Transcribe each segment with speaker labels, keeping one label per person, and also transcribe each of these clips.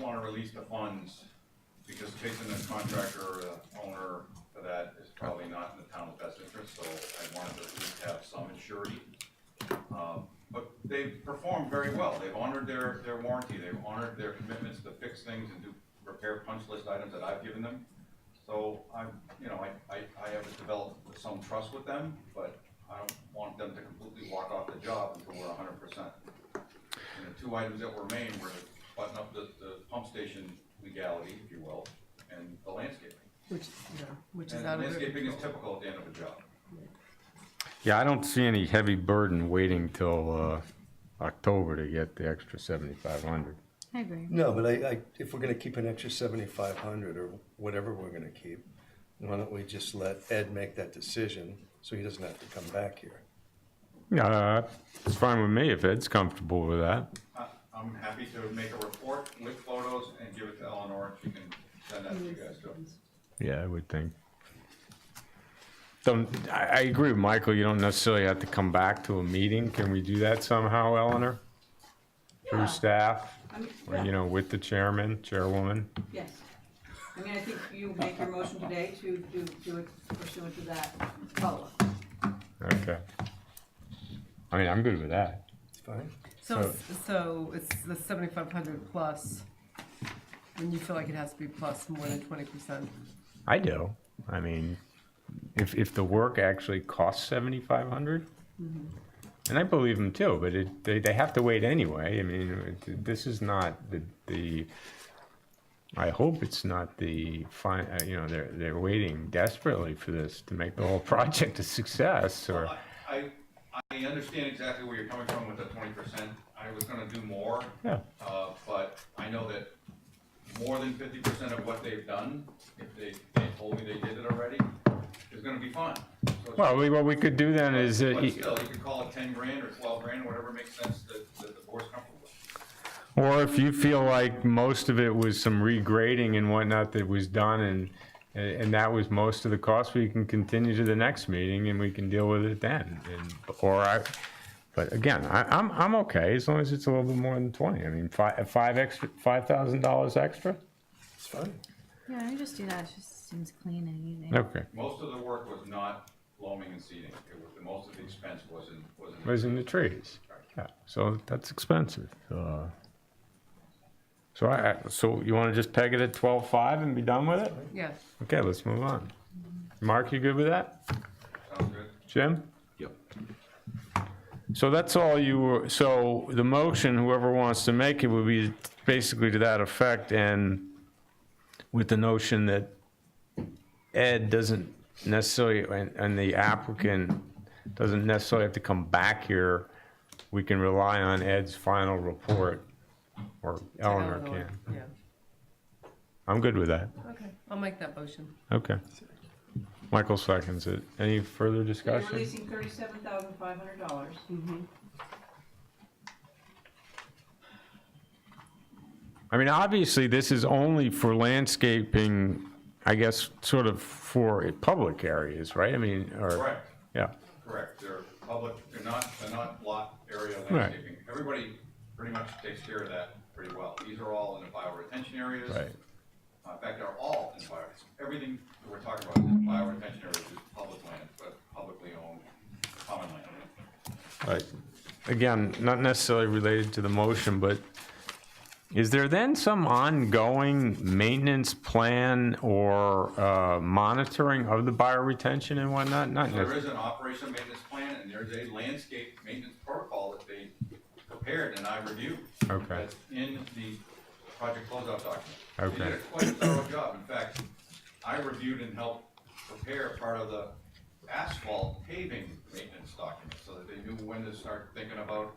Speaker 1: wanna release the funds, because chasing the contractor or the owner for that is probably not in the town's best interest, so I wanted to at least have some surety. Um, But they've performed very well, they've honored their, their warranty, they've honored their commitments to fix things and do repair punch list items that I've given them. So I'm, you know, I, I, I have developed some trust with them, but I don't want them to completely walk off the job until we're hundred percent. And the two items that were main were to button up the, the pump station legality, if you will, and the landscaping.
Speaker 2: Which, yeah, which is
Speaker 1: And
Speaker 2: out of their
Speaker 1: landscaping is
Speaker 2: control.
Speaker 1: typical at the end of a job.
Speaker 3: Yeah, I don't see any heavy burden waiting till, uh, October to get the extra seventy-five hundred.
Speaker 4: I agree.
Speaker 5: No, but I, I, if we're gonna keep an extra seventy-five hundred or whatever we're gonna keep, why don't we just let Ed make that decision so he doesn't have to come back here?
Speaker 3: Uh, it's fine with me if Ed's comfortable with that.
Speaker 1: I, I'm happy to make a report with photos and give it to Eleanor, and she can send that to you guys too.
Speaker 3: Yeah, I would think. Don't, I, I agree with Michael, you don't necessarily have to come back to a meeting, can we do that somehow, Eleanor? Through staff,
Speaker 6: I mean,
Speaker 3: or, you
Speaker 6: yeah,
Speaker 3: know, with the chairman, chairwoman?
Speaker 6: yes. I mean, I think you make your motion today to do, do it pursuant to that follow-up.
Speaker 3: Okay. I mean, I'm good with that.
Speaker 5: It's fine?
Speaker 2: So, it's- so it's the seventy-five hundred plus, and you feel like it has to be plus more than twenty percent.
Speaker 3: I do. I mean, if if the work actually costs seventy five and I believe them too, but it, they they have to wait anyway. I mean, it, this is not the the. I hope it's not the fine. Uh, you know, they're they're waiting desperately for this to make the whole project a success. Or
Speaker 1: I, I- I understand exactly where you're coming from with the twenty percent. I was gonna do more.
Speaker 3: Yeah.
Speaker 1: Uh, but I know that more than fifty percent of what they've done, if they, they told me they did it already, is gonna be fine. So it's-
Speaker 3: well, we, what we could do then is uh,
Speaker 1: But still, you could call it ten grand or twelve grand, whatever makes sense that, that the board's comfortable with.
Speaker 3: Or if you feel like most of it was some regrading and whatnot that was done and, and that was most of the cost, we can continue to the next meeting and we can deal with it then. And, or I, but again, I, I'm, I'm okay as long as it's a little bit more than twenty. I mean, five, five extra, five thousand dollars extra?
Speaker 5: It's fine.
Speaker 4: Yeah, I just do that. It just seems clean and easy.
Speaker 3: Okay,
Speaker 1: Most of the work was not loaming and seeding. It was, the most of the expense was in, was in.
Speaker 3: raising the trees. Yeah, so that's expensive. Uh, So I, I- so you wanna just peg it at twelve-five and be done with it?
Speaker 2: Yes,
Speaker 3: Okay, let's move on. Mark, you good with that?
Speaker 1: Sounds good?
Speaker 3: Jim? Yep. So that's all you were, so the motion, whoever wants to make it, would be basically to that effect and with the notion that Ed doesn't necessarily, and, and the applicant doesn't necessarily have to come back here. We can rely on Ed's final report or Eleanor
Speaker 2: Eleanor,
Speaker 3: can.
Speaker 2: yeah,
Speaker 3: I'm good with that.
Speaker 2: okay, I'll make that motion.
Speaker 3: Okay. Michael seconds it. Any further
Speaker 6: You're
Speaker 3: discussion?
Speaker 6: releasing thirty-seven thousand five hundred dollars.
Speaker 3: I mean, obviously, this is only for landscaping, I guess, sort of for public areas, right? I mean, or,
Speaker 1: Correct.
Speaker 3: yeah,
Speaker 1: Correct, they're public, they're not, they're not lot area
Speaker 3: Right.
Speaker 1: landscaping. Everybody pretty much takes care of that pretty well. These are all in the bioretention areas.
Speaker 3: right.
Speaker 1: Uh, In fact, they're all in bio, everything that we're talking about in bioretention areas is public land, but publicly owned, common land.
Speaker 3: Right. Again, not necessarily related to the motion, but is there then some ongoing maintenance plan or uh, monitoring of the bioretention and whatnot? Not
Speaker 1: There
Speaker 3: necessarily.
Speaker 1: is an operation maintenance plan and there's a landscape maintenance protocol that they prepared and I reviewed.
Speaker 3: Okay.
Speaker 1: That's in the project closeout document. They did
Speaker 3: Okay.
Speaker 1: a quite thorough job. In fact, I reviewed and helped prepare part of the asphalt paving maintenance document so that they knew when to start thinking about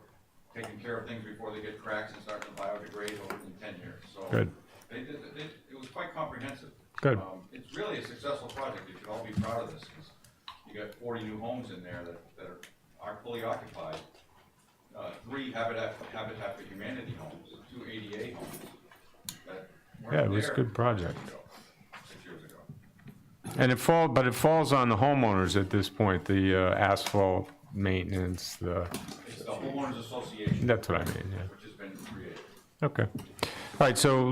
Speaker 1: taking care of things before they get cracks and start to biodegrade over in ten years, so.
Speaker 3: Good.
Speaker 1: They did, they, it was quite comprehensive.
Speaker 3: Good.
Speaker 1: Um, It's really a successful project. You should all be proud of this, 'cause you got forty new homes in there that, that are, are fully occupied. Uh, three Habitat, Habitat for Humanity homes, two ADA homes that weren't
Speaker 3: Yeah, it was a
Speaker 1: there
Speaker 3: good project.
Speaker 1: years ago, Six years ago.
Speaker 3: And it fall, but it falls on the homeowners at this point, the uh, asphalt maintenance, the,
Speaker 1: It's the homeowners association,
Speaker 3: that's what I mean, yeah.
Speaker 1: which has been created.
Speaker 3: Okay. All right, so